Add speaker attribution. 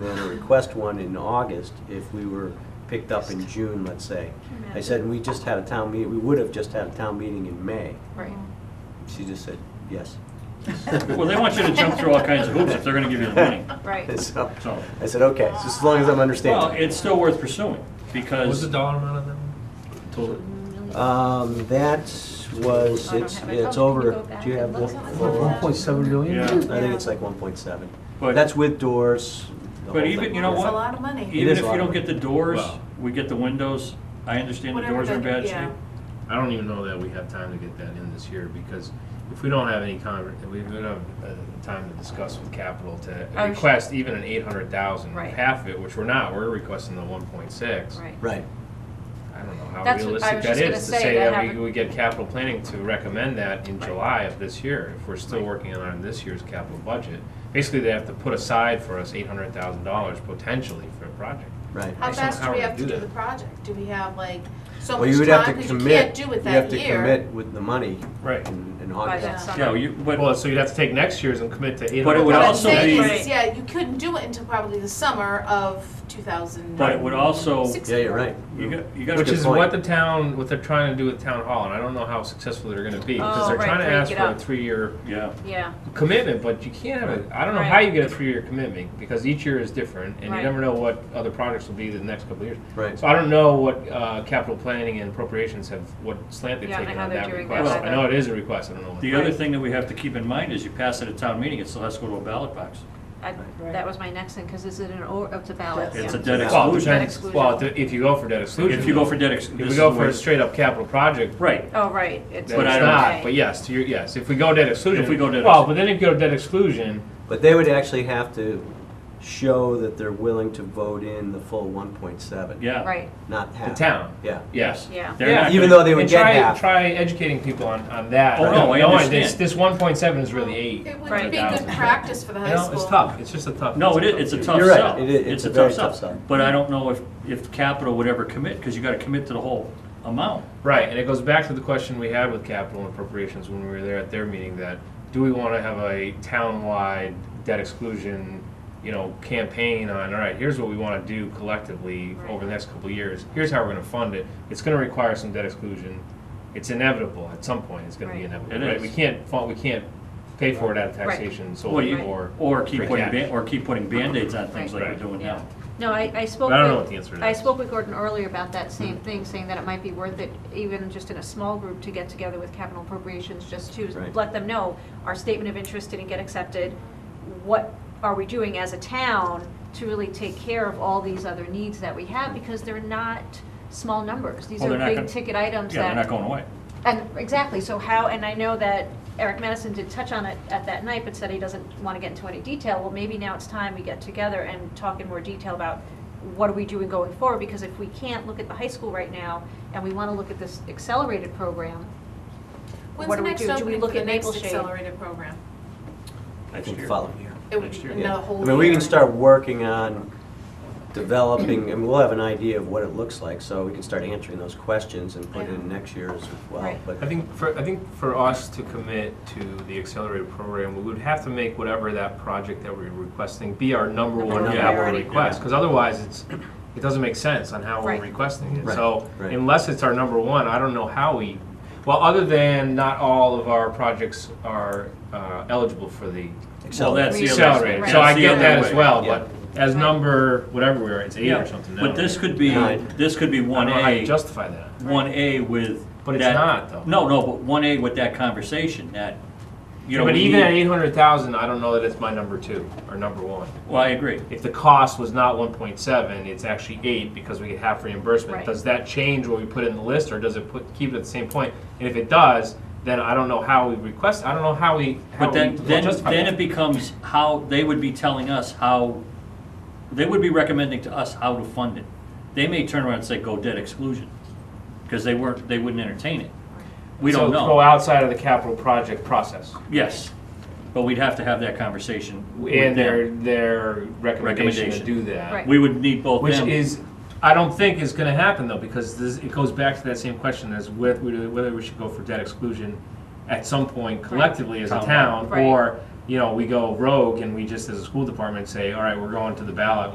Speaker 1: one or request one in August if we were picked up in June, let's say. I said, we just had a town meeting, we would have just had a town meeting in May.
Speaker 2: Right.
Speaker 1: She just said, yes.
Speaker 3: Well, they want you to jump through all kinds of hoops if they're gonna give you the money.
Speaker 2: Right.
Speaker 1: So,
Speaker 3: So-
Speaker 1: I said, okay, so as long as I'm
Speaker 3: Well,
Speaker 1: understanding.
Speaker 3: it's still worth pursuing,
Speaker 4: What's the
Speaker 3: because,
Speaker 4: dollar amount on that one? Total?
Speaker 1: Um, that was,
Speaker 2: I don't
Speaker 1: it's,
Speaker 2: have it.
Speaker 1: it's
Speaker 2: Oh,
Speaker 1: over,
Speaker 2: can you go back
Speaker 1: do you have?
Speaker 2: and look?
Speaker 4: One point seven million?
Speaker 3: Yeah.
Speaker 1: I think it's like one point seven.
Speaker 3: But-
Speaker 1: That's with doors. the
Speaker 3: But
Speaker 1: whole
Speaker 3: even,
Speaker 1: thing.
Speaker 3: you know
Speaker 2: That's a
Speaker 3: what?
Speaker 2: lot of money.
Speaker 1: It
Speaker 3: even
Speaker 1: is
Speaker 3: if
Speaker 1: a
Speaker 3: you
Speaker 1: lot
Speaker 3: don't
Speaker 1: of
Speaker 3: get the doors,
Speaker 4: Wow.
Speaker 3: we get the windows, I understand the
Speaker 2: Whatever
Speaker 3: doors are in
Speaker 2: the-
Speaker 3: bad
Speaker 2: yeah.
Speaker 3: shape.
Speaker 4: I don't even know that we have time to get that in this year, because if we don't have any conver, if we don't have uh, time to discuss with capital to
Speaker 2: I'm sh-
Speaker 4: request even an eight hundred thousand,
Speaker 2: Right.
Speaker 4: half of it, which we're not, we're requesting the one point six.
Speaker 2: Right.
Speaker 1: Right.
Speaker 4: I don't know how
Speaker 2: That's what I
Speaker 4: realistic
Speaker 2: was
Speaker 4: that
Speaker 2: just gonna
Speaker 4: is to
Speaker 2: say,
Speaker 4: say
Speaker 2: that
Speaker 4: that we,
Speaker 2: haven't-
Speaker 4: we get capital planning to recommend that in
Speaker 2: Right.
Speaker 4: July of this year, if we're still working on this year's capital budget. Basically, they have to put aside for us eight hundred thousand dollars potentially for a project.
Speaker 1: Right.
Speaker 5: How
Speaker 4: Based on
Speaker 5: fast
Speaker 4: how
Speaker 5: do we
Speaker 4: we
Speaker 5: have to
Speaker 4: do
Speaker 5: do
Speaker 4: that.
Speaker 5: the project? Do we have like so
Speaker 1: Well, you
Speaker 5: much
Speaker 1: would have to
Speaker 5: time, because you can't
Speaker 1: commit,
Speaker 5: do
Speaker 1: you
Speaker 5: it
Speaker 1: have
Speaker 5: that
Speaker 1: to
Speaker 5: year?
Speaker 1: commit with the money
Speaker 4: Right.
Speaker 1: in, in
Speaker 2: By
Speaker 1: August.
Speaker 2: that
Speaker 5: Yeah.
Speaker 3: Yeah,
Speaker 2: summer.
Speaker 3: you,
Speaker 4: Well,
Speaker 3: but,
Speaker 4: so you'd have to take next year's and commit to eight
Speaker 3: But
Speaker 4: hundred thousand.
Speaker 3: it would
Speaker 5: What I'm
Speaker 3: also
Speaker 5: saying
Speaker 3: be-
Speaker 5: is, Yeah, you couldn't do it until probably the summer of two thousand.
Speaker 3: but it would also,
Speaker 1: Yeah, you're right.
Speaker 3: you got, you got.
Speaker 4: Which
Speaker 1: Good
Speaker 4: is
Speaker 1: point.
Speaker 4: what the town, what they're trying to do with town hall, and I don't know how successful they're gonna be, because
Speaker 2: Oh,
Speaker 4: they're
Speaker 2: right,
Speaker 4: trying to
Speaker 2: break
Speaker 4: ask
Speaker 2: it
Speaker 4: for a
Speaker 2: up.
Speaker 4: three-year
Speaker 3: Yeah,
Speaker 2: Yeah,
Speaker 4: commitment, but you can't have it, I don't know how
Speaker 2: Right.
Speaker 4: you get a three-year commitment, because each year is different, and you
Speaker 2: Right.
Speaker 4: never know what other projects will be the next couple of years.
Speaker 1: Right.
Speaker 4: So I don't know what, uh, capital planning and appropriations have, what slant they've
Speaker 2: Yeah, I don't
Speaker 4: taken
Speaker 2: know
Speaker 4: on
Speaker 2: how they're
Speaker 4: that
Speaker 2: doing that
Speaker 4: request. I
Speaker 2: either.
Speaker 4: know it is a request, I don't know what.
Speaker 3: the other
Speaker 2: Right.
Speaker 3: thing that we have to keep in mind is you pass it at town meeting, it still has to go to a ballot box.
Speaker 2: I, that was my next thing, because is it an, or, it's a ballot?
Speaker 3: It's
Speaker 2: yeah.
Speaker 3: a dead
Speaker 4: Well, it
Speaker 3: exclusion.
Speaker 2: Debt
Speaker 4: depends,
Speaker 2: exclusion.
Speaker 4: well, if you go for debt exclusion.
Speaker 3: If you go for debt
Speaker 4: If
Speaker 3: exclusion.
Speaker 4: we go for a straight-up capital project,
Speaker 3: Right,
Speaker 2: Oh, right. It's
Speaker 3: But
Speaker 4: But
Speaker 3: I
Speaker 4: I
Speaker 3: don't-
Speaker 4: not, but yes, to your, yes, if we go debt exclusion.
Speaker 3: If we go debt
Speaker 4: Well,
Speaker 3: exclusion.
Speaker 4: but then if you go debt exclusion,
Speaker 1: But they would actually have to show that they're willing to vote in the full one point seven.
Speaker 3: yeah.
Speaker 2: Right,
Speaker 1: Not half.
Speaker 4: the town,
Speaker 1: Yeah.
Speaker 4: yes.
Speaker 2: yeah.
Speaker 3: They're not
Speaker 1: Even
Speaker 3: gonna-
Speaker 1: though they would
Speaker 4: And
Speaker 1: get
Speaker 4: try-
Speaker 1: half.
Speaker 4: Try educating people on, on that.
Speaker 3: Oh, no, I
Speaker 4: Knowing
Speaker 3: understand.
Speaker 4: this- This one point seven is really eight.
Speaker 5: It
Speaker 2: Right.
Speaker 5: would be good practice for the
Speaker 4: You
Speaker 5: high
Speaker 4: know,
Speaker 5: school.
Speaker 4: it's tough, it's just a tough.
Speaker 3: No, it is, it's a tough
Speaker 1: You're right.
Speaker 3: sell.
Speaker 1: It is- it's a very tough sell.
Speaker 3: But I don't know if, if capital would ever commit, because you gotta commit to the whole amount.
Speaker 4: Right, and it goes back to the question we had with capital and appropriations when we were there at their meeting that, do we wanna have a town-wide debt exclusion, you know, campaign on, all right, here's what we wanna do collectively over the next couple of years, here's how we're gonna fund it, it's gonna require some debt exclusion, it's inevitable, at some point, it's gonna be
Speaker 2: Right.
Speaker 4: inevitable,
Speaker 3: It
Speaker 4: right?
Speaker 3: is.
Speaker 4: We can't, fu- we can't pay for it out of
Speaker 2: Right.
Speaker 4: taxation
Speaker 3: Well,
Speaker 4: solely,
Speaker 3: you-
Speaker 4: or,
Speaker 3: Or keep
Speaker 4: Free
Speaker 3: putting,
Speaker 4: cash.
Speaker 3: ban- or keep putting Band-Aids on things like we're
Speaker 4: Right.
Speaker 3: doing
Speaker 2: Yeah.
Speaker 3: now.
Speaker 2: No, I, I spoke.
Speaker 4: But I don't know
Speaker 2: with-
Speaker 4: what the answer to
Speaker 2: I
Speaker 4: that is.
Speaker 2: spoke with Gordon earlier about that same thing, saying that it might be worth it, even just in a small group, to get together with capital appropriations, just to
Speaker 1: Right.
Speaker 2: let them know, our statement of interest didn't get accepted. What are we doing as a town to really take care of all these other needs that we have? Because they're not small numbers. These
Speaker 3: Well,
Speaker 2: are
Speaker 3: they're not gonna-
Speaker 2: big ticket items
Speaker 3: Yeah, they're
Speaker 2: that
Speaker 3: not going away.
Speaker 2: And exactly, so how, and I know that Eric Madison did touch on it at that night, but said he doesn't want to get into any detail. Well, maybe now it's time we get together and talk in more detail about what are we doing going forward? Because if we can't look at the high school right now, and we want to look at this accelerated program,
Speaker 5: When's
Speaker 2: What
Speaker 5: the
Speaker 2: do we
Speaker 5: next
Speaker 2: do? Do we
Speaker 5: opening
Speaker 2: look
Speaker 5: for the
Speaker 2: at
Speaker 5: next
Speaker 2: Mapleshade?
Speaker 5: accelerated program?
Speaker 1: I
Speaker 3: Next
Speaker 1: think
Speaker 3: year.
Speaker 1: following year.
Speaker 5: It would
Speaker 4: Next
Speaker 5: be
Speaker 4: year.
Speaker 5: another whole
Speaker 1: I
Speaker 5: year.
Speaker 1: mean, we can start working on developing, and we'll have an idea of what it looks like, so we can start answering those questions and put it in next year as well.
Speaker 2: Right.
Speaker 1: But
Speaker 4: I think for, I think for us to commit to the accelerated program, we would have to make whatever that project that we're requesting be our number
Speaker 2: Number
Speaker 4: one
Speaker 1: one
Speaker 4: capital
Speaker 2: priority.
Speaker 4: request, because otherwise it's, it doesn't make sense on how we're
Speaker 2: Right.
Speaker 4: requesting it.
Speaker 1: Right,
Speaker 4: So
Speaker 1: right.
Speaker 4: unless it's our number one, I don't know how we, well, other than not all of our projects are uh, eligible for the
Speaker 3: Well,
Speaker 1: Accelerate.
Speaker 3: that's the other.
Speaker 4: accelerated.
Speaker 2: Right.
Speaker 4: So I
Speaker 3: that's the
Speaker 4: get
Speaker 3: other
Speaker 4: that
Speaker 3: way.
Speaker 4: as well,
Speaker 1: Yeah.
Speaker 4: but as number, whatever we are, it's eight
Speaker 3: Yeah,
Speaker 4: or something now.
Speaker 3: but this could be,
Speaker 1: Nine.
Speaker 3: this could be
Speaker 4: I
Speaker 3: one
Speaker 4: don't know how you
Speaker 3: A,
Speaker 4: justify that.
Speaker 3: one A with.
Speaker 4: But it's
Speaker 3: that-
Speaker 4: not, though.
Speaker 3: No, no, but one A with that conversation, that, you know.
Speaker 4: But
Speaker 3: we
Speaker 4: even at
Speaker 3: need-
Speaker 4: eight hundred thousand, I don't know that it's my number two or number one.
Speaker 3: Well, I agree.
Speaker 4: if the cost was not one point seven, it's actually eight because we get half reimbursement.
Speaker 2: Right.
Speaker 4: Does that change what we put in the list, or does it put, keep it at the same point? And if it does, then I don't know how we request, I don't know how we, how
Speaker 3: But
Speaker 4: we
Speaker 3: then, then,
Speaker 4: justify
Speaker 3: then
Speaker 4: that.
Speaker 3: it becomes how, they would be telling us how, they would be recommending to us how to fund it. They may turn around and say, go debt exclusion, because they weren't, they wouldn't entertain it. We don't
Speaker 4: So go
Speaker 3: know.
Speaker 4: outside of the capital project process.
Speaker 3: Yes, but we'd have to have that conversation with
Speaker 4: And their,
Speaker 3: them.
Speaker 4: their recommendation to
Speaker 3: Recommendation.
Speaker 4: do that.
Speaker 2: Right.
Speaker 3: We would need both
Speaker 4: Which
Speaker 3: them.
Speaker 4: is, I don't think is gonna happen though, because this, it goes back to that same question as with, whether we should go for debt exclusion at some point collectively as a
Speaker 3: Town.
Speaker 4: town,
Speaker 2: Right.
Speaker 4: or, you know, we go rogue and we just as a school department say, all right, we're going to the ballot,